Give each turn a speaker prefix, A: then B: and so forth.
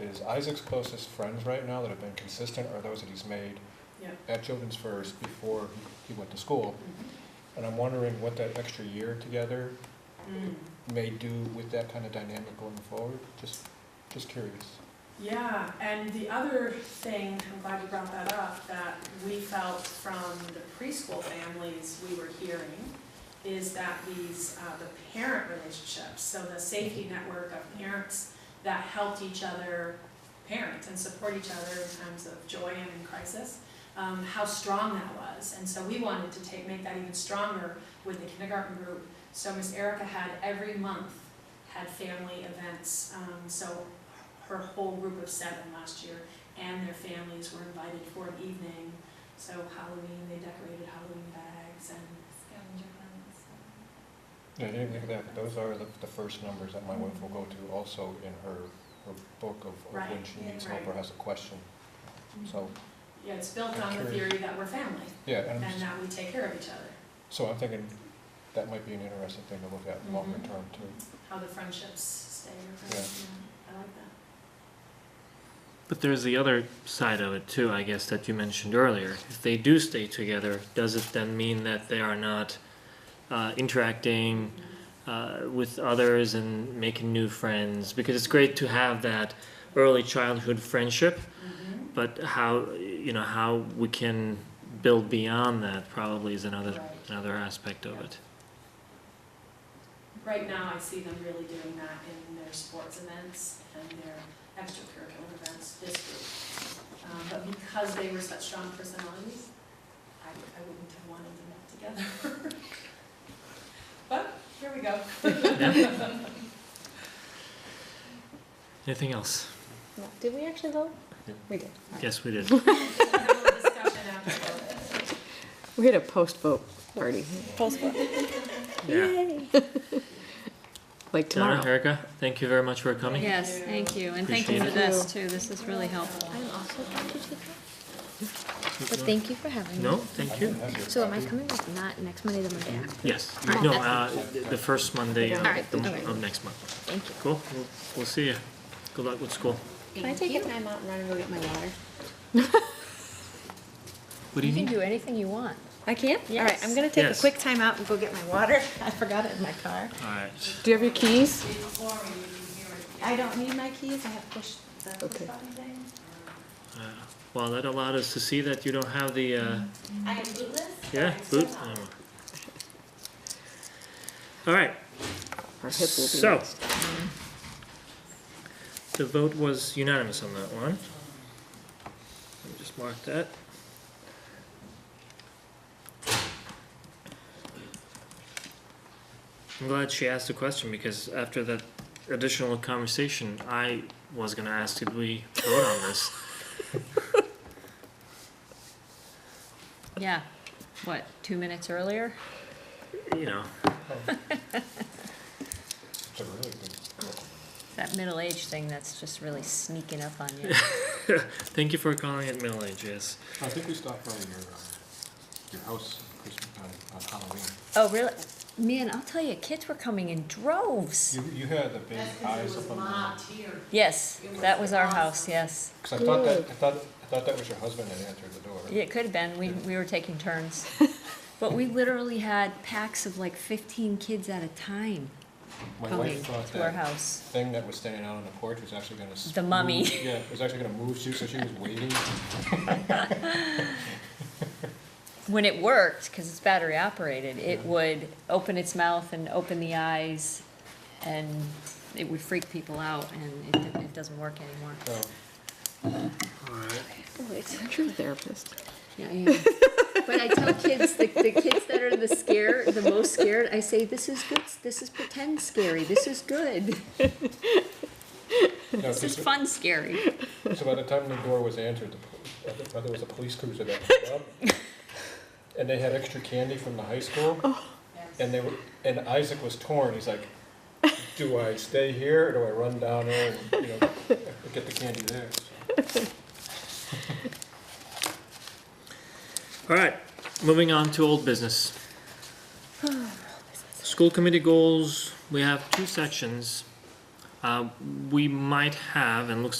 A: is Isaac's closest friends right now that have been consistent are those that he's made
B: Yeah.
A: at Children's First before he went to school.
B: Mhm.
A: And I'm wondering what that extra year together
B: Mm.
A: may do with that kind of dynamic going forward. Just, just curious.
B: Yeah, and the other thing, I'm glad you brought that up, that we felt from the preschool families we were hearing is that these, uh, the parent relationships, so the safety network of parents that helped each other parent and support each other in times of joy and in crisis, um, how strong that was. And so we wanted to take, make that even stronger with the kindergarten group. So Miss Erica had every month had family events, um, so her whole group of seven last year and their families were invited for an evening. So Halloween, they decorated Halloween bags and
C: scavenger hunts. and-
A: Yeah, I didn't think of that. Those are the, the first numbers that my wife will go to also in her, her book of of when
B: Right,
A: she
C: yeah,
A: needs help or
B: right. Mm-hmm.
A: has a question. So,
B: Yeah, it's built on the
A: Okay.
B: theory that we're family
A: yeah, and I'm
B: and uh,
A: just-
B: that we take care of each other,
A: so I'm thinking that might be an interesting thing to look at longer
B: Mhm.
A: term too.
B: how the friendships stay. or-
A: Yeah.
B: yeah, I like that.
D: But there's the other side of it too, I guess, that you mentioned earlier. If they do stay together, does it then mean that they are not uh, interacting uh, with others and making new friends? Because it's great to have that
B: Mm-hmm.
D: early childhood friendship,
B: Mhm.
D: but how you know how we can build beyond that probably is another
B: Right.
D: another aspect of it.
B: Right now, I see them really doing that in their sports events and their extracurricular events this group. Um, But because they were such strong personalities, I I wouldn't have wanted them all together. But here we go.
D: Anything else?
E: No. Did we actually vote?
A: Yeah.
E: We did. All right.
D: Yes, we did.
B: It's a little discussion after.
E: We had a post-vote party. Post-vote.
D: Yeah.
E: Like
D: Donna,
E: tomorrow.
D: Erica, thank you very much for coming.
C: Yes, thank you, and thank you for
D: Appreciate
E: it.
C: this too, this is really helpful.
F: I'm also glad to take that, but thank you for having me.
D: No, thank you.
F: So am I coming, like, not next Monday, the Monday after?
D: Yes,
F: Alright,
D: no, uh,
F: that's-
D: the first Monday of,
F: All right,
D: the m-
F: okay.
D: of next month.
F: Thank you.
D: Cool, we'll, we'll see you. Good luck with school.
F: Can I take a time out and run and go get my water?
D: What do you
F: can
D: need?
F: do anything you want.
E: I can't?
F: All right, I'm gonna take a
D: Yes.
F: quick time out and go get my water. I forgot it in my car.
D: Alright,
E: Do you have your keys?
B: Before we hear it.
F: I don't need my keys, I have push, the push
E: Okay.
F: button thing.
D: uh, well, that allowed us to see that you don't have the, uh,
F: I am bootless. but
D: yeah,
F: I'm still
D: boot.
F: on.
D: Alright,
E: Our hip will be
D: so.
E: next.
D: The vote was unanimous on that one. Let me just mark that. I'm glad she asked the question because after that additional conversation, I was gonna ask, did we vote on this?
C: Yeah, what, two minutes earlier?
D: You know,
A: It's a really good.
C: That middle age thing that's just really sneaking up on you.
D: thank you for calling it middle age, yes.
A: I think we stopped by your, uh, your house Christmas, on- on Halloween.
C: Oh, really? Man, I'll tell you, kids were coming in droves.
A: You, you had the big eyes up on the,
B: here.
C: Yes, that was our house, yes.
A: because I thought that, I thought, I thought that was your husband that answered the door.
C: Yeah, It could have been, we, we were taking turns. But we literally had packs of like fifteen kids at a time
A: My
C: coming
A: wife thought
C: to our
A: that
C: house.
A: thing that was standing out on the porch was actually gonna. s-
C: The mummy.
A: move- Yeah, it was actually gonna move, she, so she was waiting.
C: when it worked, because it's battery operated, it
A: Yeah.
C: would open its mouth and open the eyes, and it would freak people out, and it, it doesn't work anymore.
A: So,
D: Alright.
E: Oh, it's a true therapist.
C: Yeah, yeah. but I tell kids, the, the kids that are the scared, the most scared, I say, this is good, this is pretend scary, this is good,
A: no,
C: this is
A: so-
C: fun scary.
A: So by the time the door was answered, the, pol- I think there was a police cruiser that came up. And they had extra candy from the high school. And they were, and Isaac was torn, he's like, do I stay here or do I run down there and, you know, get the candy there?
D: All right, moving on to old business. School committee goals, we have two sections. Uh, we might have, and looks